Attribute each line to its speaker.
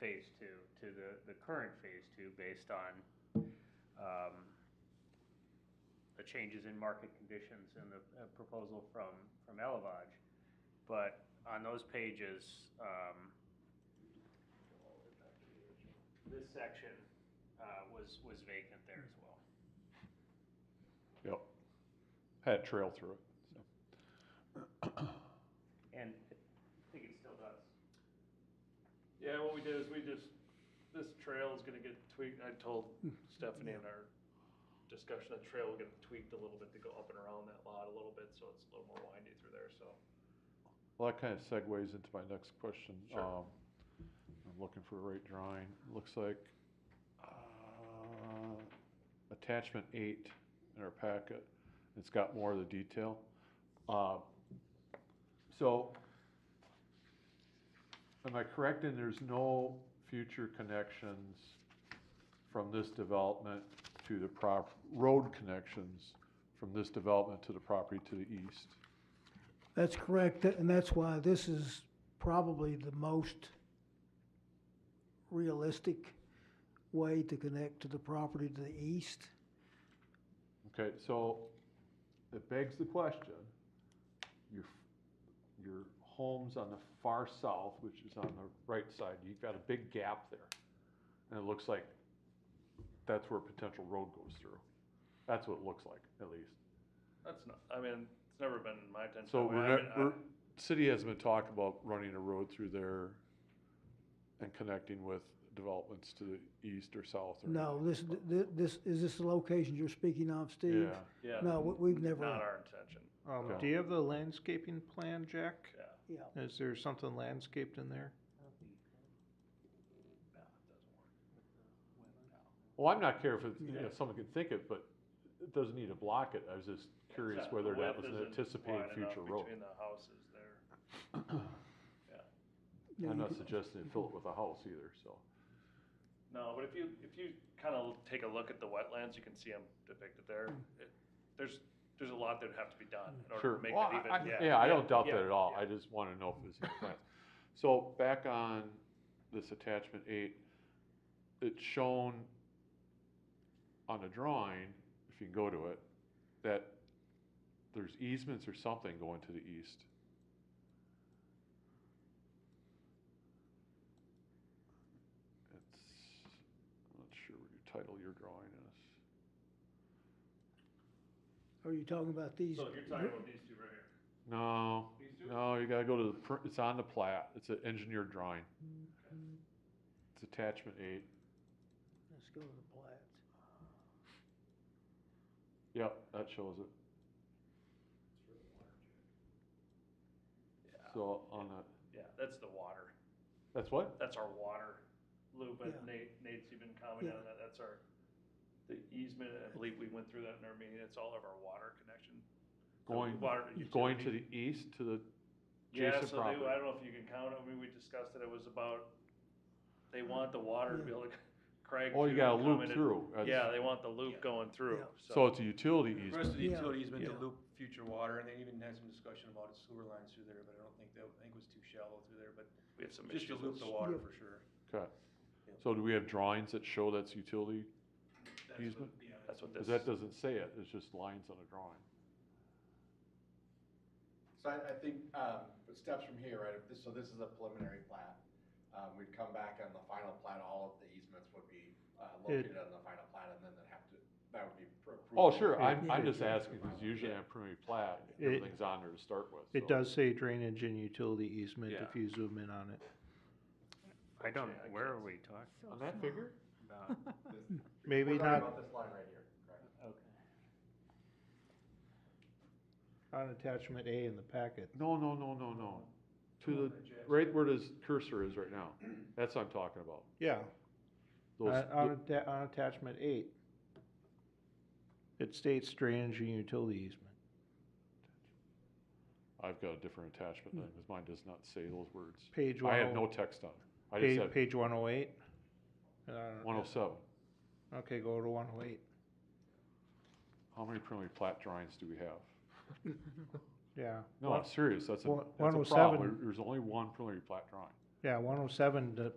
Speaker 1: phase two to the, the current phase two based on, um, the changes in market conditions and the uh, proposal from, from Elevage. But on those pages, um, this section, uh, was, was vacant there as well.
Speaker 2: Yep. Had trail through it, so.
Speaker 1: And I think it still does.
Speaker 3: Yeah, what we did is we just, this trail is gonna get tweaked, I told
Speaker 2: Hmm.
Speaker 3: Stephanie in our discussion, that trail will get tweaked a little bit to go up and around that lot a little bit, so it's a little more windy through there, so.
Speaker 2: Well, that kind of segues into my next question.
Speaker 3: Sure.
Speaker 2: Um, I'm looking for the right drawing. Looks like, uh, attachment eight in our packet. It's got more of the detail. Uh, so am I correct in there's no future connections from this development to the prop, road connections from this development to the property to the east?
Speaker 4: That's correct, and that's why this is probably the most realistic way to connect to the property to the east.
Speaker 2: Okay, so it begs the question, your, your home's on the far south, which is on the right side, you've got a big gap there. And it looks like that's where a potential road goes through. That's what it looks like, at least.
Speaker 3: That's not, I mean, it's never been my intention.
Speaker 2: So
Speaker 3: that way.
Speaker 2: we're,
Speaker 3: I mean,
Speaker 2: not-
Speaker 3: I-
Speaker 2: we're, city hasn't been talking about running a road through there and connecting with developments to the east or south or.
Speaker 4: No, this, th- th- this, is this the location you're speaking of, Steve?
Speaker 2: Yeah.
Speaker 3: Yeah.
Speaker 4: No, we- we've never.
Speaker 3: Not our intention,
Speaker 5: Um,
Speaker 2: Okay.
Speaker 5: do you have the landscaping plan, Jack?
Speaker 3: yeah.
Speaker 4: Yeah,
Speaker 5: Is there something landscaped in there?
Speaker 3: No, it doesn't work.
Speaker 2: Well, I'm not care if it, you know, someone could think it, but it doesn't need to block it. I was just curious
Speaker 3: Yeah,
Speaker 2: whether
Speaker 3: the
Speaker 2: that
Speaker 3: width
Speaker 2: was an
Speaker 3: isn't
Speaker 2: anticipated
Speaker 3: wide enough
Speaker 2: future road.
Speaker 3: Between the houses there. Yeah.
Speaker 4: Yeah,
Speaker 2: I'm
Speaker 4: you
Speaker 2: not
Speaker 4: could-
Speaker 2: suggesting to fill it with a house either, so.
Speaker 3: No, but if you, if you kind of take a look at the wetlands, you can see them depicted there.
Speaker 4: Hmm.
Speaker 3: It- There's, there's a lot that'd have to be done in order
Speaker 2: Sure.
Speaker 3: to make
Speaker 2: Well,
Speaker 3: that
Speaker 2: I-
Speaker 3: even,
Speaker 2: I-
Speaker 3: yeah.
Speaker 2: Yeah, I don't doubt
Speaker 3: yeah,
Speaker 2: that at all.
Speaker 3: yeah.
Speaker 2: I just want to know if it's in the plans. So back on this attachment eight, it's shown on the drawing, if you can go to it, that there's easements or something going to the east. It's, I'm not sure what your title your drawing is.
Speaker 4: Are you talking about these?
Speaker 3: So you're talking about these two right here.
Speaker 2: No,
Speaker 3: These two?
Speaker 2: no, you gotta go to the, pr- it's on the plat, it's an engineered drawing. It's attachment eight,
Speaker 4: Let's go to the plat.
Speaker 2: yep, that shows it. So on the,
Speaker 3: Yeah, that's the water.
Speaker 2: that's what?
Speaker 3: That's our water loop,
Speaker 4: Yeah.
Speaker 3: and Nate, Nate's even commented
Speaker 4: Yeah.
Speaker 3: on that, that's our, the easement, I believe we went through that in our meeting, it's all of our water connection. The
Speaker 2: Going,
Speaker 3: water
Speaker 2: going to the
Speaker 3: utility.
Speaker 2: east, to the
Speaker 3: Yeah,
Speaker 2: adjacent
Speaker 3: so they, I
Speaker 2: property.
Speaker 3: don't know if you can count, it. I mean, we discussed it, it was about, they want the water to be able to, Craig.
Speaker 2: Oh, you
Speaker 3: too
Speaker 2: gotta loop
Speaker 3: commented-
Speaker 2: through. That's-
Speaker 3: Yeah, they want the loop going through,
Speaker 4: Yeah.
Speaker 2: So
Speaker 3: so,
Speaker 2: it's a
Speaker 6: The
Speaker 2: utility
Speaker 6: rest of
Speaker 2: easement,
Speaker 6: the
Speaker 4: Yeah.
Speaker 6: utilities meant to
Speaker 5: Yeah.
Speaker 6: loop future water, and they even had some discussion about a sewer lines through there, but I don't think, that- I think it was too shallow through there, but
Speaker 3: we had some
Speaker 6: just to
Speaker 3: issues.
Speaker 6: loop
Speaker 3: with-
Speaker 6: the water
Speaker 4: Yeah.
Speaker 6: for sure.
Speaker 2: okay.
Speaker 6: Yeah.
Speaker 2: So do we have drawings that show that's utility?
Speaker 6: That's what,
Speaker 2: Easement?
Speaker 6: yeah,
Speaker 3: That's what
Speaker 2: Cause
Speaker 3: this,
Speaker 2: that
Speaker 3: yeah,
Speaker 2: doesn't say it, it's just lines on a drawing.
Speaker 7: So I, I think, um, steps from here, right, if this, so this is a preliminary plat. Um, we'd come back on the final plat, all of the easements would be, uh, located on the final plat, and then they'd have to, that would be pro- approved.
Speaker 2: Oh, sure, I'm,
Speaker 5: It-
Speaker 2: I'm
Speaker 5: it-
Speaker 2: just asking, cause usually on preliminary plat,
Speaker 5: It-
Speaker 2: everything's on there to start with. so.
Speaker 5: It does say drainage and utility easement if
Speaker 3: Yeah.
Speaker 5: you zoom in on it.
Speaker 1: I don't,
Speaker 3: Actually, I
Speaker 1: where are
Speaker 3: can't-
Speaker 1: we talking
Speaker 2: On that figure?
Speaker 1: about?
Speaker 7: This-
Speaker 5: Maybe
Speaker 7: We're talking
Speaker 5: not-
Speaker 7: About this line right here, correct?
Speaker 1: Okay.
Speaker 5: On attachment A in the packet.
Speaker 2: No, no, no, no, no. To
Speaker 6: one that
Speaker 2: the,
Speaker 6: Jack's-
Speaker 2: right where this cursor is right now. That's what I'm talking about.
Speaker 5: Yeah, on,
Speaker 2: Those,
Speaker 5: Uh, on atta- on attachment eight. It states drainage and utility easement.
Speaker 2: I've got a different attachment then, because mine does not say those words.
Speaker 5: Page
Speaker 2: I have
Speaker 5: 10
Speaker 2: no text on it. I just
Speaker 5: Page,
Speaker 2: have
Speaker 5: page one oh eight? Uh,
Speaker 2: one oh seven.
Speaker 5: Okay, go to one oh eight.
Speaker 2: How many preliminary plat drawings do we have?
Speaker 5: Yeah.
Speaker 2: No, I'm serious, that's a,
Speaker 5: one-
Speaker 2: that's a
Speaker 5: 107
Speaker 2: problem. There's only one preliminary plat drawing.
Speaker 5: Yeah, one oh seven